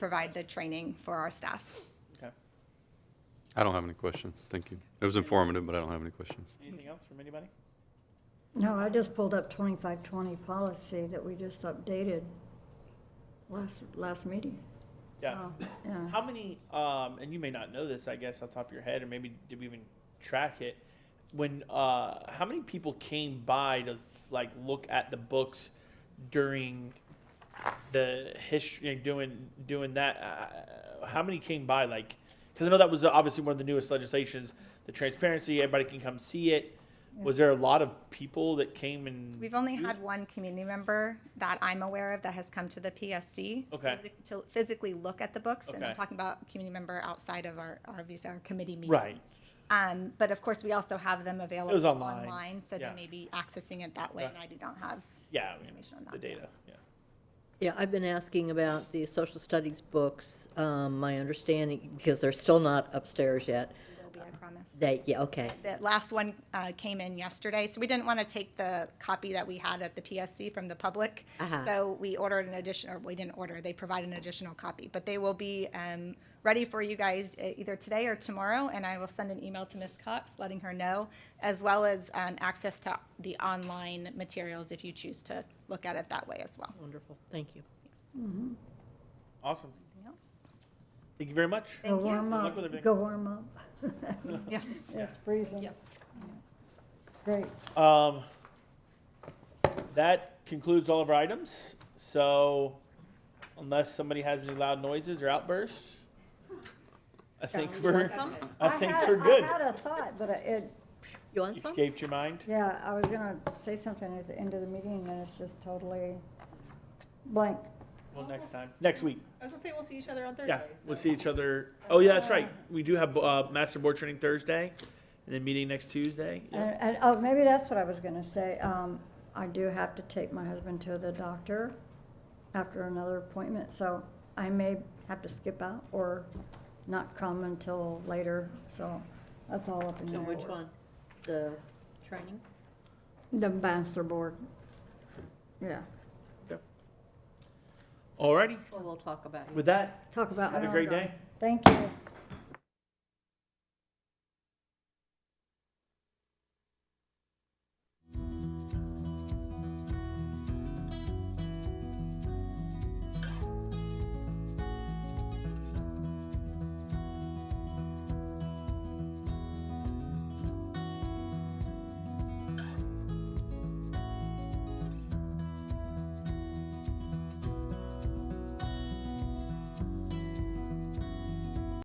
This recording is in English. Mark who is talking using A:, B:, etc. A: provide the training for our staff.
B: Okay.
C: I don't have any questions. Thank you. It was informative, but I don't have any questions.
B: Anything else from anybody?
D: No, I just pulled up 2520 policy that we just updated last, last meeting.
B: Yeah.
D: So, Yeah.
B: How many, um, and you may not know this, I guess, off the top of your head, or maybe did we even track it? When, uh, how many people came by to like look at the books during the history, doing, doing that? Uh, how many came by like, because I know that was obviously one of the newest legislations, the transparency, everybody can come see it. Was there a lot of people that came and?
A: We've only
B: used-
A: had one community member that I'm aware of that has come to the PSC.
B: Okay.
A: physi- To physically look at the books, and I'm
B: Okay.
A: talking about community member outside of our, our visa, our committee meetings.
B: Right.
A: Um, but of course, we also have them available.
B: online,
A: so they
B: yeah.
A: may be accessing it that way,
B: Okay.
A: and I do not have.
B: Yeah, I mean,
A: information on
B: the
A: that.
B: data, yeah.
E: Yeah, I've been asking about the social studies books, um, my understanding, because they're still not upstairs yet,
A: It'll be, I promise.
E: that, yeah, okay,
A: The last one uh, came in yesterday, so we didn't want to take the copy that we had at the PSC from the public.
E: Uh-huh.
A: So we ordered an addition, or we didn't order, they provide an additional copy. But they will be um, ready for you guys uh, either today or tomorrow, and I will send an email to Ms. Cox letting her know, as well as um, access to the online materials if you choose to look at it that way as well.
E: wonderful, thank you.
B: Awesome.
A: Anything else?
B: Thank you very much.
A: Thank
D: Go
A: you.
D: warm
B: Good luck with everything.
D: up, go warm up.
A: Yes.
D: It's freezing. Great.
B: Um, that concludes all of our items. So unless somebody has any loud noises or outbursts, I think we're, I think
D: had-
B: we're good.
D: I had a thought, but it,
E: You want some?
B: Escaped your mind?
D: yeah, I was gonna say something at the end of the meeting, and it's just totally blank.
B: Well, next time, next week.
F: I was gonna say, we'll see each other on Thursday.
B: Yeah, we'll
F: so-
B: see each other. Oh, yeah, that's right. We do have, uh, master board training Thursday and then meeting next Tuesday. Yeah.
D: And, and, oh, maybe that's what I was gonna say. Um, I do have to take my husband to the doctor after another appointment, so I may have to skip out or not come until later, so that's all up in
E: So
D: there.
E: which one? The training?
D: The master board. Yeah,
B: Alrighty,
E: Well, we'll talk about it.
B: with that,
D: talk about.
B: have a great day.
D: Thank you.